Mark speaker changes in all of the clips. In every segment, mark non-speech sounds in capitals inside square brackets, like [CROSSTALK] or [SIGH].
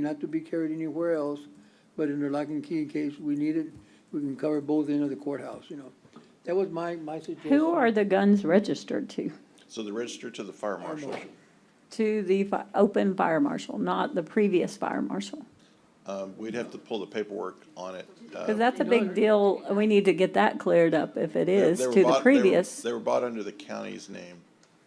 Speaker 1: not to be carried anywhere else, but in the lock and key in case we need it, we can cover both ends of the courthouse, you know. That was my, my suggestion.
Speaker 2: Who are the guns registered to?
Speaker 3: So the register to the fire marshal,
Speaker 2: To the fi- open fire marshal, not the previous fire marshal?
Speaker 3: um, we'd have to pull the paperwork on it. uh,
Speaker 2: Because that's a big deal, we need to get that cleared up if it
Speaker 3: they-
Speaker 2: is
Speaker 3: they were
Speaker 2: to
Speaker 3: bought-
Speaker 2: the
Speaker 3: they were-
Speaker 2: previous.
Speaker 3: They were bought under the county's name.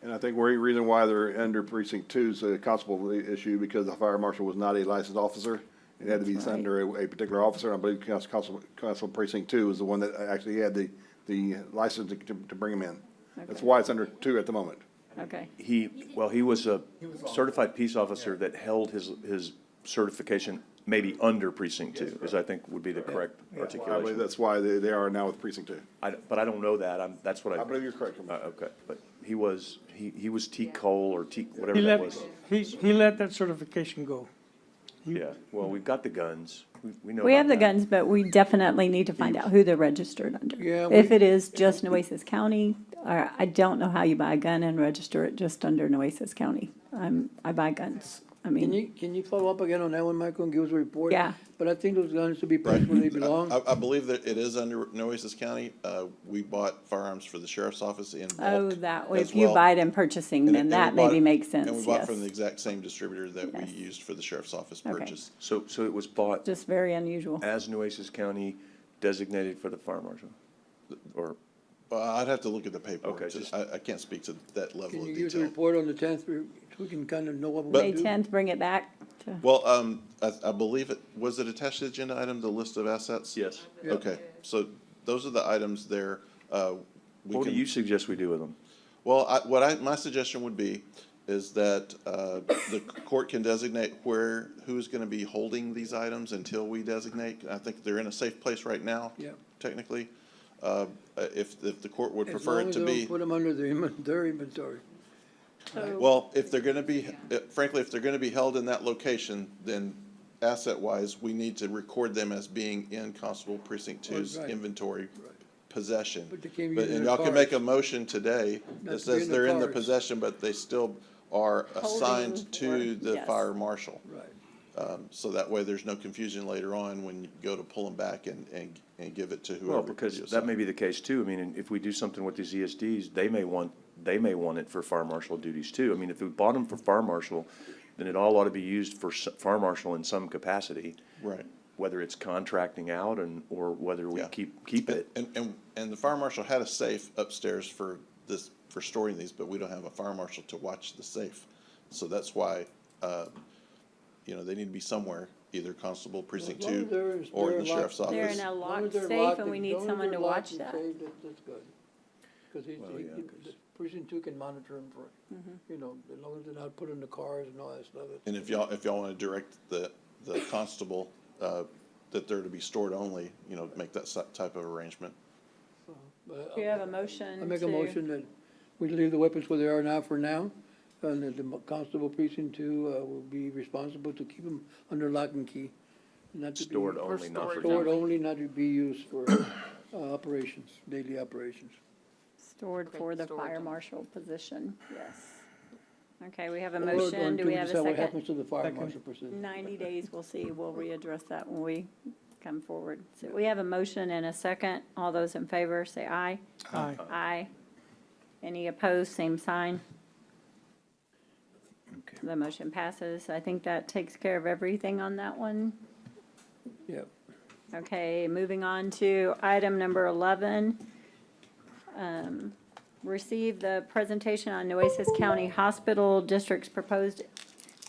Speaker 4: And I think the reason why they're under precinct two is a constable issue because the fire marshal was not a licensed officer. It had to be
Speaker 2: That's right.
Speaker 4: under a, a particular officer. I believe Cons- constable, constable precinct two is the one that actually had the, the license to, to bring him in. That's
Speaker 2: Okay.
Speaker 4: why it's under two at the moment.
Speaker 2: Okay,
Speaker 5: He, well, he was a certified peace officer that held his, his certification maybe under precinct two, is I think would be the correct
Speaker 4: I believe
Speaker 5: articulation.
Speaker 4: that's why they, they are now with precinct two.
Speaker 5: I, but I don't know that, I'm, that's what I.
Speaker 4: I believe you're correct,
Speaker 5: Uh,
Speaker 4: Commissioner.
Speaker 5: okay, but he was, he, he was T Cole or T, whatever
Speaker 6: He
Speaker 5: that
Speaker 6: let,
Speaker 5: was.
Speaker 6: he, he let that certification go.
Speaker 5: Yeah, well, we've got the guns, we, we know.
Speaker 2: we have the
Speaker 5: about that.
Speaker 2: guns, but we definitely need to find out who they're registered under.
Speaker 1: Yeah,
Speaker 2: If
Speaker 1: we-
Speaker 2: it is just Nueces County, or I don't know how you buy a gun and register it just under Nueces County. I'm, I buy guns, I
Speaker 1: Can
Speaker 2: mean,
Speaker 1: you, can you follow up again on that one, Michael, and give us a report?
Speaker 2: Yeah.
Speaker 1: But I think those guns should be placed where they belong.
Speaker 3: I, I believe that it is under Nueces County. Uh, we bought firearms for the sheriff's office in bulk
Speaker 2: oh, that, way.
Speaker 3: as
Speaker 2: if you
Speaker 3: well.
Speaker 2: buy it in purchasing,
Speaker 3: And-
Speaker 2: then
Speaker 3: and
Speaker 2: that
Speaker 3: we bought
Speaker 2: maybe
Speaker 3: it-
Speaker 2: makes
Speaker 3: And we
Speaker 2: sense,
Speaker 3: bought
Speaker 2: yes.
Speaker 3: from the exact same distributor that we
Speaker 2: Yes.
Speaker 3: used for the sheriff's office
Speaker 2: Okay.
Speaker 3: purchase.
Speaker 5: So, so it was bought
Speaker 2: Just very unusual.
Speaker 5: as Nueces County designated for the fire marshal? Or,
Speaker 3: Well, I'd have to look at the paperwork.
Speaker 5: Okay,
Speaker 3: to-
Speaker 5: just-
Speaker 3: I, I can't speak to that
Speaker 1: Can
Speaker 3: level
Speaker 1: you
Speaker 3: of
Speaker 1: give us a
Speaker 3: detail.
Speaker 1: report on the tenth, so we can kind of know what we're
Speaker 2: May
Speaker 1: doing?
Speaker 2: tenth, bring it back to.
Speaker 3: Well, um, I, I believe it, was it attached to the agenda item, the list of assets?
Speaker 5: yes,
Speaker 3: Okay, so those are the items there. Uh, we
Speaker 5: what do
Speaker 3: can-
Speaker 5: you suggest we do with them?
Speaker 3: Well, I, what I, my suggestion would be is that, uh, the court can designate where, who's gonna be holding these items until we designate. I think they're in a safe place right now.
Speaker 1: Yeah.
Speaker 3: Technically, uh, if, if the court would
Speaker 1: As
Speaker 3: prefer
Speaker 1: long
Speaker 3: it
Speaker 1: as
Speaker 3: to
Speaker 1: they
Speaker 3: be.
Speaker 1: don't Put them under their inven- their [LAUGHS] inventory.
Speaker 3: Well, if they're gonna be, eh, frankly, if they're gonna be held in that location, then asset-wise, we need to record them as being in Constable Precinct Two's
Speaker 1: Right.
Speaker 3: inventory possession.
Speaker 1: But they can't be in
Speaker 3: and
Speaker 1: their
Speaker 3: y'all can make a
Speaker 1: cars.
Speaker 3: motion today
Speaker 1: Not to be
Speaker 3: that says
Speaker 1: in their
Speaker 3: they're in the
Speaker 1: cars.
Speaker 3: possession, but they still are assigned to
Speaker 2: Holding or-
Speaker 3: the
Speaker 2: yes.
Speaker 3: fire marshal.
Speaker 1: Right.
Speaker 3: Um, so that way, there's no confusion later on when you go to pull them back and, and, and give it to whoever.
Speaker 5: Well, because
Speaker 3: you
Speaker 5: that
Speaker 3: assign.
Speaker 5: may be the case too. I mean, and if we do something with these ESDs, they may want, they may want it for fire marshal duties too. I mean, if we bought them for fire marshal, then it all ought to be used for s- fire marshal in some capacity.
Speaker 3: Right.
Speaker 5: Whether it's contracting out and, or whether we
Speaker 3: Yeah.
Speaker 5: keep, keep
Speaker 3: And,
Speaker 5: it.
Speaker 3: and- and, and the fire marshal had a safe upstairs for this, for storing these, but we don't have a fire marshal to watch the safe. So that's why, uh, you know, they need to be somewhere, either constable precinct
Speaker 1: As long as they're
Speaker 3: two
Speaker 1: in-
Speaker 3: or
Speaker 1: they're
Speaker 3: the sheriff's
Speaker 1: locked-
Speaker 2: They're
Speaker 3: office.
Speaker 2: in a
Speaker 1: As long
Speaker 2: locked
Speaker 1: as they're
Speaker 2: safe,
Speaker 1: locked
Speaker 2: and we need
Speaker 1: as long as
Speaker 2: someone
Speaker 1: they're
Speaker 2: to
Speaker 1: locked
Speaker 2: watch
Speaker 1: and
Speaker 2: that.
Speaker 1: safe, that- That's good. Cause he, he-
Speaker 5: yeah,
Speaker 1: he- the precinct two can monitor them for,
Speaker 2: Mm-hmm.
Speaker 1: you know, as long as they're not put in the cars and all that stuff. it's-
Speaker 3: And if y'all, if y'all wanna direct the, the constable, uh, that they're to be stored only, you know, make that si- type of arrangement.
Speaker 1: But
Speaker 2: Do you
Speaker 1: I-
Speaker 2: have a motion
Speaker 1: I make a
Speaker 2: to-
Speaker 1: motion that we leave the weapons where they are now for now, and that the constable precinct two, uh, will be responsible to keep them under lock and key. not to be-
Speaker 5: Stored only, not for.
Speaker 1: Stored only, not to be used for, uh, operations, daily operations.
Speaker 2: Stored for the fire marshal position, yes. Okay, we have a
Speaker 1: Or
Speaker 2: motion, do
Speaker 1: until
Speaker 2: we have a
Speaker 1: decide What
Speaker 2: second? Mm.
Speaker 1: happens to the fire marshal precinct?
Speaker 2: Ninety days, we'll see, we'll readdress that when we come forward. So we have a motion and a second, all those in favor, say aye.
Speaker 5: Uh-huh.
Speaker 6: Aye.
Speaker 2: Aye. Any opposed, same sign. The motion passes, I think that takes care of everything on that one.
Speaker 1: Yeah.
Speaker 2: Okay, moving on to item number 11. Um, Receive the presentation on Nueces County Hospital District's proposed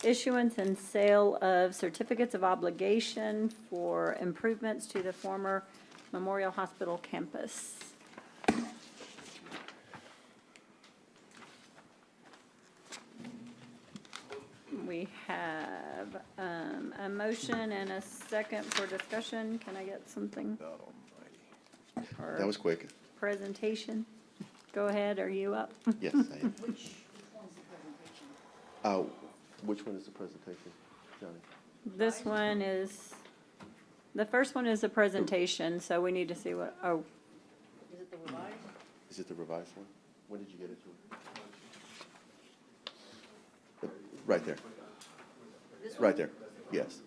Speaker 2: issuance and sale of certificates of obligation for improvements to the former Memorial Hospital campus. We have um, a motion and a second for discussion. Can I get something? Or
Speaker 7: That was quick.
Speaker 2: Presentation. Go ahead, are you up?
Speaker 3: [LAUGHS]
Speaker 7: Yes, I am. Uh, which one is the presentation, Johnny?
Speaker 2: This one is, the first one is a presentation, so we need to see what, oh,
Speaker 7: Is it the revised one? When did you get it to? Right there. Right there, yes.